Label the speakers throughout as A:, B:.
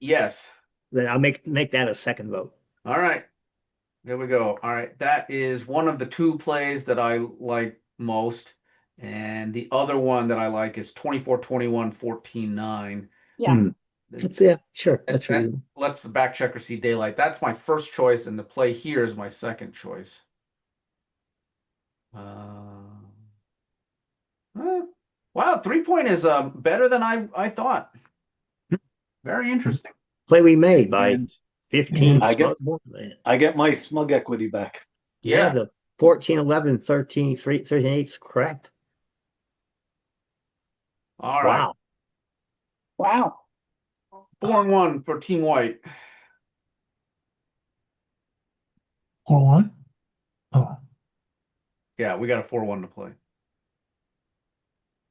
A: Yes.
B: Then I'll make, make that a second vote.
A: All right. There we go. All right. That is one of the two plays that I like most. And the other one that I like is 24 21 14 9.
C: Yeah,
B: Hmm. That's, yeah, sure,
A: That-
B: that's
A: that-
B: reasonable.
A: Let's the back checker see daylight. That's my first choice, and the play here is my second choice. Uh, huh. wow, three point is uh, better than I, I thought. Very interesting.
B: Play we made by
D: And
B: fifteen.
D: I
B: small
D: get-
B: ball man.
D: I get my smug equity back.
B: Yeah,
A: Yeah.
B: the fourteen, eleven, thirteen, three, thirteen, eight's correct.
A: All right.
B: Wow.
C: wow.
A: Four and one for Team White.
E: Or one? Oh,
A: Yeah, we got a four one to play.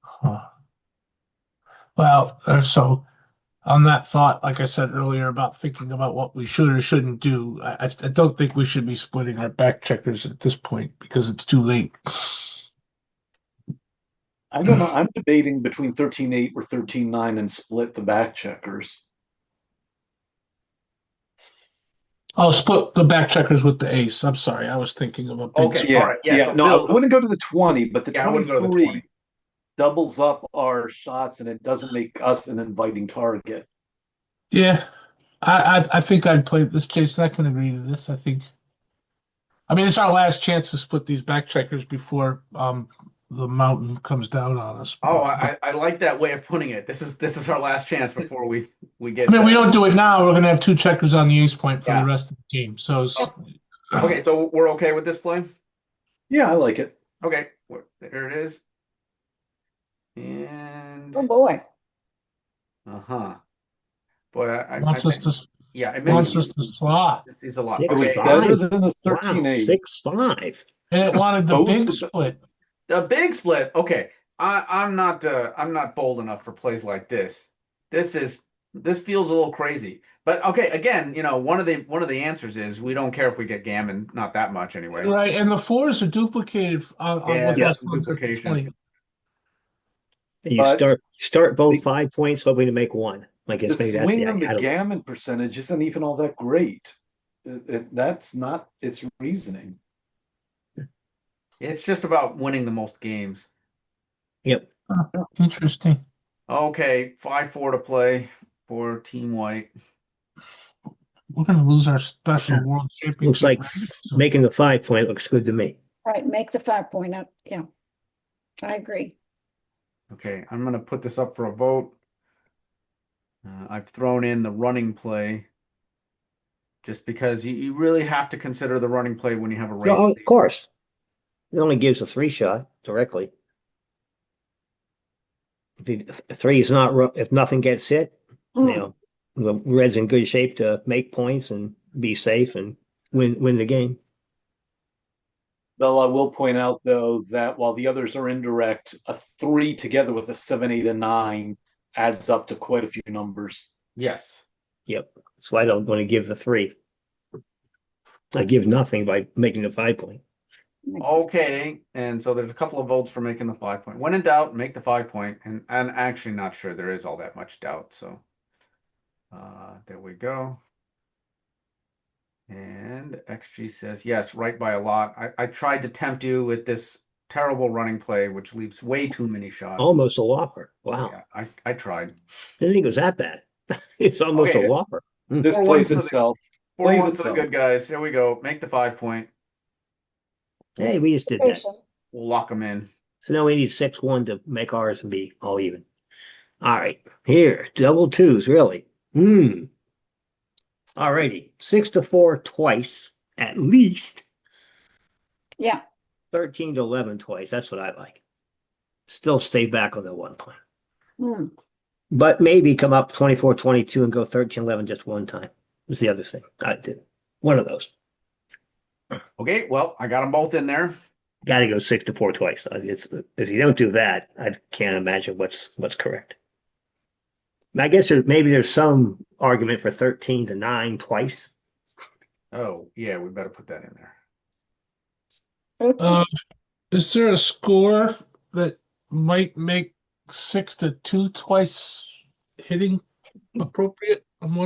E: huh. Well, uh, so on that thought, like I said earlier about thinking about what we should or shouldn't do, I, I I don't think we should be splitting our back checkers at this point because it's too late.
D: I don't know. I'm debating between thirteen eight or thirteen nine and split the back checkers.
E: I'll Oh, split the back checkers with the ace. I'm sorry, I was thinking of a big
A: Okay.
E: sp-
D: Yeah,
A: alright, yeah,
D: yeah.
A: so
D: no,
A: Bill-
D: I wouldn't go to the twenty, but the
A: Yeah, I wouldn't go to the
D: twenty-three
A: 20.
D: doubles up our shots, and it doesn't make us an inviting target.
E: Yeah, I, I I think I'd play this, Jason. I can agree to this. I think. I mean, it's our last chance to split these back checkers before um the mountain comes down on us.
A: Oh, I, I I like that way of putting it. This is this is our last chance before we we get.
E: I mean, we
A: back.
E: don't do it now. We're gonna have two checkers on the ace point for
A: Yeah. Oh,
E: the rest of the game. So, it's-
A: Okay, so we're okay with this play.
D: Yeah, I like it.
A: Okay, we're- there it is. And
C: Oh, boy.
A: uh huh. Boy, I, I, I
E: wants us to
A: yeah, I
E: wants
A: missed
E: us to slot,
A: this is a lot.
B: It
D: It was
A: Okay,
B: fine.
D: better than the thirteen
B: Wow,
D: eight.
B: six, five.
E: and it wanted the
D: Both
E: big
D: of the-
E: split.
A: the big split. Okay, I I'm not uh, I'm not bold enough for plays like this. This is this feels a little crazy. But okay, again, you know, one of the one of the answers is we don't care if we get gammon, not that much anyway.
E: Right, and the fours are duplicated on, on
A: Yeah,
E: with
A: there's
E: us
A: some
E: on the
A: duplication.
E: 20.
B: And you
D: But-
B: start, start both five points hoping to make one. I
D: The
B: guess maybe that's the,
D: swing on
B: idea. I
D: the
B: don't-
D: gammon percentage isn't even all that great. It- it- that's not its reasoning.
A: It's just about winning the most games.
B: yep,
E: Interesting.
A: Okay, five four to play for Team White.
E: We're gonna lose our special world championship.
B: looks like
E: rating.
B: making the five point looks good to me.
C: All right, make the five point up. Yeah. I agree.
A: Okay, I'm gonna put this up for a vote. Uh, I've thrown in the running play. Just because you, you really have to consider the running play when you have a race.
B: Oh,
A: lead.
B: Of course. It only gives a three shot directly. If he- if three is not, ru- if nothing gets hit, you
C: Mm,
B: know, the Red's in good shape to make points and be safe and win, win the game.
D: Though I will point out though that while the others are indirect, a three together with a seven, eight, and nine adds up to quite a few numbers.
A: Yes.
B: Yep. So I don't want to give the three. I give nothing by making the five point.
A: Okay, and so there's a couple of votes for making the five point. When in doubt, make the five point, and I'm actually not sure there is all that much doubt, so. Uh, there we go. And XG says, yes, right by a lot. I, I tried to tempt you with this terrible running play, which leaves way too many shots.
D: Oh,
B: Almost a whopper. Wow.
A: Yeah, I, I tried.
B: Didn't think it was that bad. It's almost
A: Okay.
B: a whopper.
D: This
A: Or one
D: plays
A: for the-
D: itself.
A: Four
D: Plays
A: one for the
D: itself.
A: good guys. Here we go. Make the five point.
B: Hey, we just did that.
C: Jason,
A: We'll lock them in.
B: So now we need six one to make ours and be all even. All right, here, double twos, really. Hmm. All righty, six to four twice, at least.
C: Yeah,
B: Thirteen to eleven twice. That's what I like. Still stay back on the one point,
C: mm,
B: but maybe come up 24, 22 and go 13, 11 just one time. Is the other thing I did. One of those.
A: Okay, well, I got them both in there.
B: Got to go six to four twice. Uh, It's, if you don't do that, I can't imagine what's what's correct. And I guess there, maybe there's some argument for thirteen to nine twice.
A: Oh, yeah, we better put that in there.
C: oops,
E: Um, is there a score that might make six to two twice hitting appropriate? I'm wondering.